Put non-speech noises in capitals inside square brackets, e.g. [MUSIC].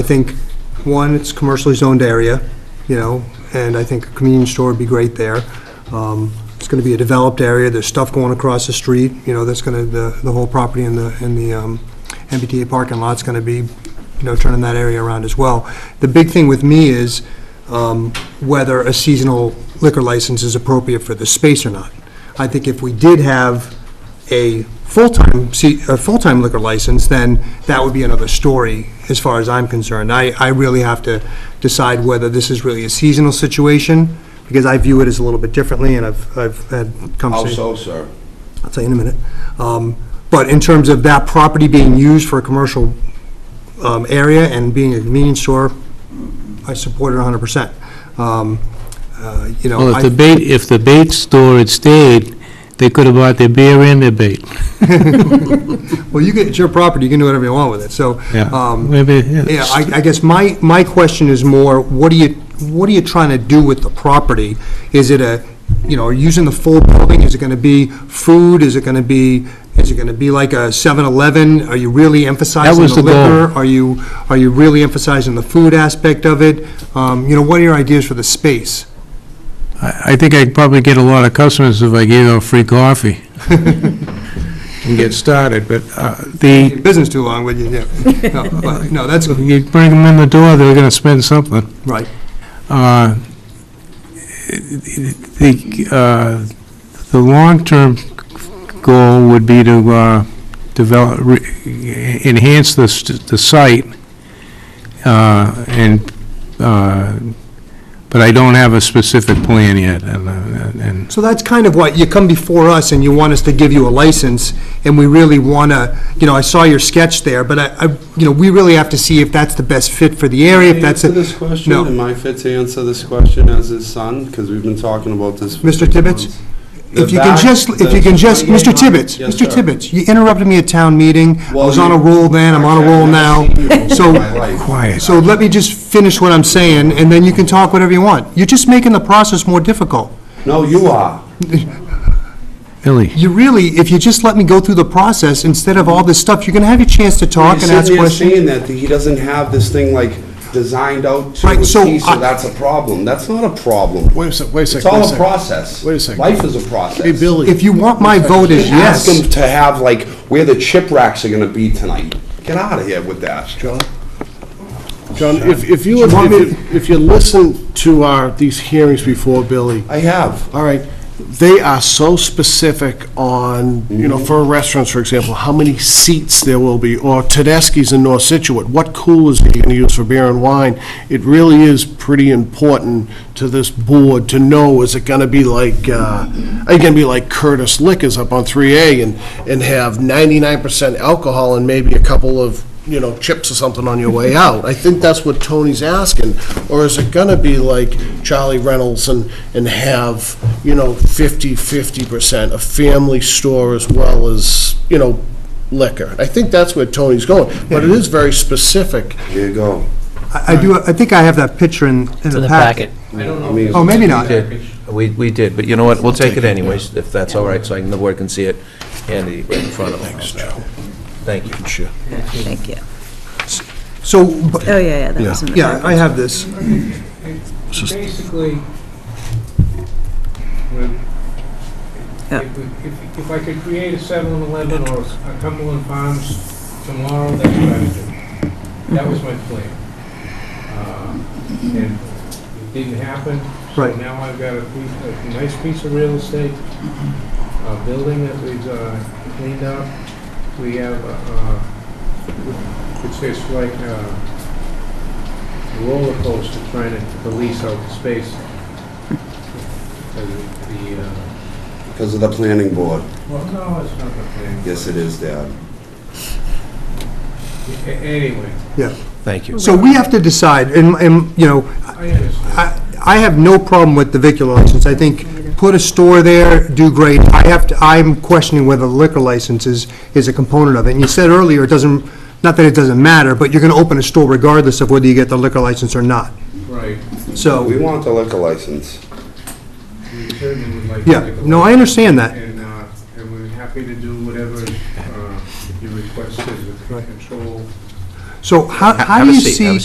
I think, one, it's commercially zoned area, you know, and I think a convenience store would be great there. Um, It's going to be a developed area, there's stuff going across the street, you know, that's going to, the, the whole property in the, in the um, MBTA parking lot's going to be, you know, turning that area around as well. The big thing with me is um, whether a seasonal liquor license is appropriate for the space or not. I think if we did have a full-time, se- a full-time liquor license, then that would be another story, as far as I'm concerned. I, I really have to decide whether this is really a seasonal situation, because I view it as a little bit differently, and I've, I've had conversations. Also, sir, I'll tell you in a minute. Um, But in terms of that property being used for a commercial um, area and being a convenience store, I support it 100%. Um, uh, You know, Well, if the I- bait, if the bait store had stayed, they could have bought their beer and their bait. well, you get, it's your property, you can do whatever you want with it, so. um, Maybe, yeah. Yeah, I, I guess my, my question is more, what are you, what are you trying to do with the property? Is it a, you know, are you using the full building, is it gonna be food, is it gonna be, is it gonna be like a 7-Eleven? Are you really emphasizing was the the goal. liquor? Are you, are you really emphasizing the food aspect of it? Um, you know, what are your ideas for the space? I I think I'd probably get a lot of customers if I gave them free [LAUGHS] coffee and get started, but uh, the, Business too long, would you, yeah. No, but, no, that's, you bring them in the door, they're going to spend something. right. Uh, The, uh, the long-term goal would be to uh, develop, re- enhance the, st- the site, uh, and, uh, but I don't have a specific plan yet, and, uh, and, So that's kind of what, you come before us and you want us to give you a license, and we really want to, you know, I saw your sketch there, but I, I- you know, we really have to see if that's the best fit for the area, if that's, answer a- this question? no. Am I fit to answer this question as his son? Because we've been talking about this. for Mr. six Tibbetts? months. The if you can back- just, if the- you can just, Yes, Mr. Tibbetts, yes, Mr. sir. Tibbetts, you interrupted me at town meeting, I Well, was on a you- roll then, I'm on a roll I've never now, seen you in my so, life. quiet. so let me just finish what I'm saying, and then you can talk whatever you want. You're just making the process more difficult. No, you are. Billy, You really, if you just let me go through the process, instead of all this stuff, you're going to have your chance to You're talk and ask sitting there questions. saying that he doesn't have this thing like designed out to a Right, T, so so I- that's a problem. That's not a problem. Wait a sec, wait a sec. It's wait all a sec. process. Wait a second. Life is a process. Hey, Billy. If you want my vote is yes. Ask him to have like where the chip racks are gonna be tonight. Get out of here with that. John? John, if, if you, want me- if if you listen to our, these hearings before, Billy, I have. all right, they are so specific on, you know, for restaurants, for example, how many seats there will be, or Tedeschi's in North Situate, what coolers are you gonna use for beer and wine? It really is pretty important to this board to know, is it gonna be like, uh, are you gonna be like Curtis Liquors up on 3A and, and have 99% alcohol and maybe a couple of you know, chips or something on your way out. I think that's what Tony's asking. Or is it gonna be like Charlie Reynolds and, and have, you know, 50, 50%, a family store as well as, you know, liquor? I think that's where Tony's going, but it is very specific. Here you go. I I do, I think I have that picture in, in the packet. I mean, Oh, maybe not. did. We, we did, but you know what, we'll take it anyways, if that's all right, so I can- the board can see it, Andy, right in front of them. Thanks, Joe. Thank you. Sure. Thank you. So, but- Oh, yeah, yeah, that was in the yeah, packet. I have this. Basically, when- Yeah. if we- if- if I could create a 7-Eleven or a Cumberland Farms tomorrow, that's what I would do. That was my plan. Uh, And it didn't happen. So Right. Now I've got a piece, a nice piece of real estate, a building that we've uh, cleaned up. We have, uh, it's just like uh, a roller coaster trying to police out the space. Because of the, uh, because of the planning board. well, no, it's not the thing. Yes, it is, Dad. A- Anyway, Yeah. Thank you. So we have to decide, and, and, you know, I understand. I, I have no problem with the vicula license. I think, put a store there, do great. I have to, I'm questioning whether the liquor license is, is a component of it. And you said earlier, it doesn't, not that it doesn't matter, but you're gonna open a store regardless of whether you get the liquor license or not. Right. We So, want the liquor license. We certainly would like to yeah, take a no, look. I understand that. And, uh, and we're happy to do whatever uh, you requested with control. So how, Ha- how have do a you seat, have see? a